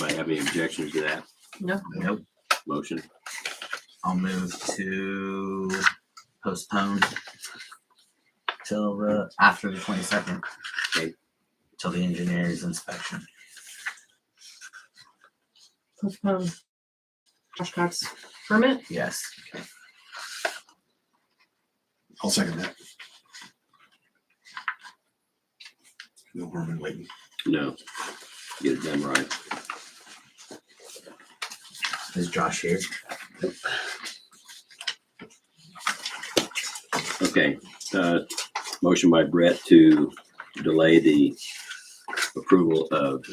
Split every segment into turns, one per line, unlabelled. have any objections to that
Nope.
motion?
I'll move to postpone till the after the twenty second.
Okay.
Till the engineer's inspection.
Postpone. Josh Cox permit.
Yes.
I'll second that. No harm in waiting.
No. Get it done right.
Is Josh here?
Okay, uh, motion by Brett to delay the approval of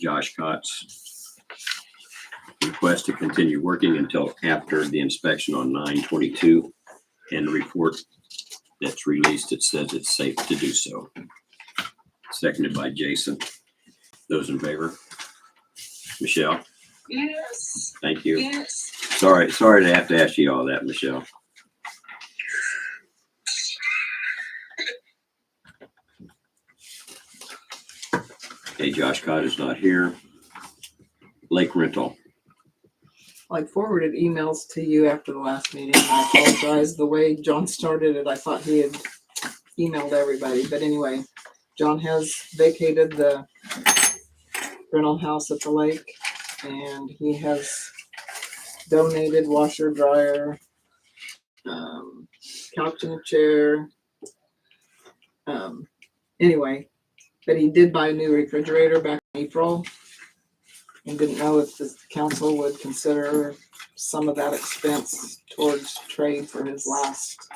Josh Cott's request to continue working until after the inspection on nine twenty-two and the report that's released, it says it's safe to do so. Seconded by Jason. Those in favor? Michelle,
Yes,
thank you.
yes.
Sorry, sorry to have to ask you all that, Michelle. Okay, Josh Cott is not here. Lake rental,
I forwarded emails to you after the last meeting. I apologize. The way John started it, I thought he had emailed everybody. But anyway, John has vacated the rental house at the lake and he has donated washer, dryer, um, couch and a chair. Um, anyway, but he did buy a new refrigerator back in April and didn't know if the council would consider some of that expense towards trade for his last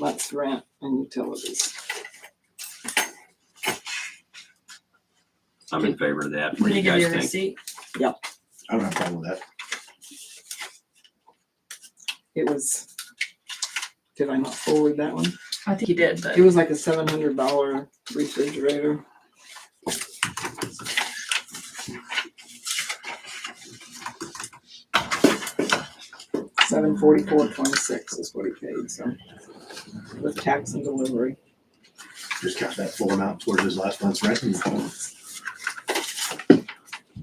month's rent and utilities.
I'm in favor of that. What do
Did
you
he give
guys
you a
think?
receipt?
I don't have a problem with that.
It was, did I not forward that one?
I think he did, but
It was like a seven hundred dollar refrigerator. Seven forty-four twenty-six is what he paid, so, with tax and delivery.
Just count that full amount towards his last month's rent. and call it.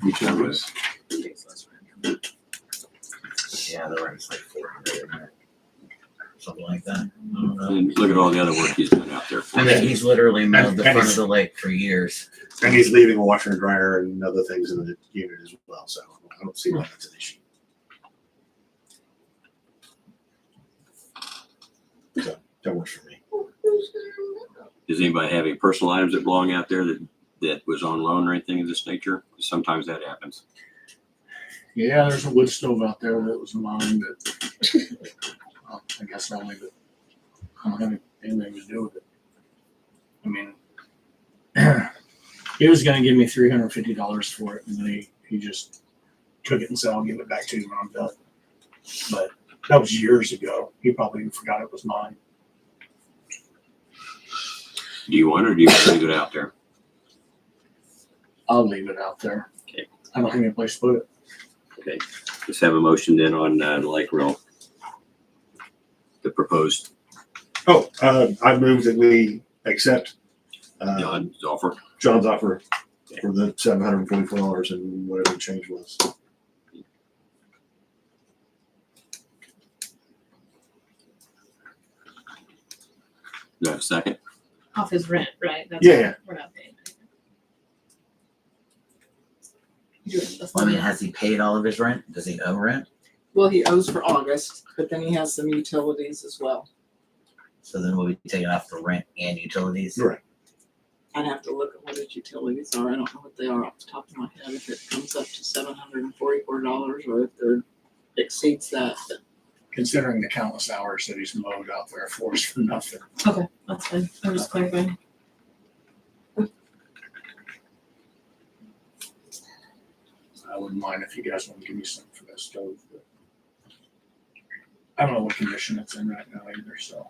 Each of us.
Yeah, the rent's like four hundred, isn't it? Something like that. I don't know.
And Look at all the other work he's done out there for
I
us.
mean, he's literally mowed the
And- and
front of
he's-
the lake for years.
And he's leaving a washer and dryer and other things in the unit as well, so I don't see why that's an issue. So that works for me.
Does anybody have any personal items that belong out there that, that was on loan or anything of this nature? Sometimes that happens.
Yeah, there's a wood stove out there that was mine, but uh, I guess I'll leave it. I don't have anything to do with it. I mean, he was gonna give me three hundred fifty dollars for it, and then he, he just took it and said, I'll give it back to you when I'm done. But that was years ago. He probably forgot it was mine.
Do you want it or do you want to leave it out there?
I'll leave it out there.
Okay.
I don't have any place to put it.
Okay, let's have a motion then on uh, Lake Rail. The proposed
Oh, uh, I move that we accept uh,
John's offer.
John's offer for the seven hundred and forty-four dollars and whatever the change was.
Do I have a second?
Off his rent, right? That's
Yeah, yeah.
We're not paying. anything.
you do it this
I mean,
one.
has he paid all of his rent? Does he owe rent?
Well, he owes for August, but then he has some utilities as well.
So then we'll be taking off the rent and utilities.
Right.
I'd have to look at what his utilities are. I don't know what they are off the top of my head, if it comes up to seven hundred and forty-four dollars or if it exceeds that. But
Considering the countless hours that he's mowed out there for us for nothing.
Okay, that's fine. I'm just clarifying.
I wouldn't mind if you guys want to give me some for that stove. but I don't know what condition it's in right now either, so.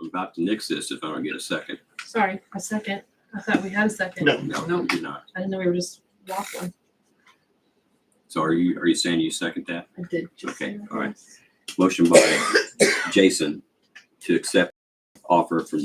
I'm about to nix this if I don't get a second.
Sorry, a second. I thought we had a second.
No.
No,
No.
you did not.
I didn't know we were just waffling.
So are you, are you saying you second that?
I did. just
Okay,
say that.
all right. Motion by Jason to accept offer from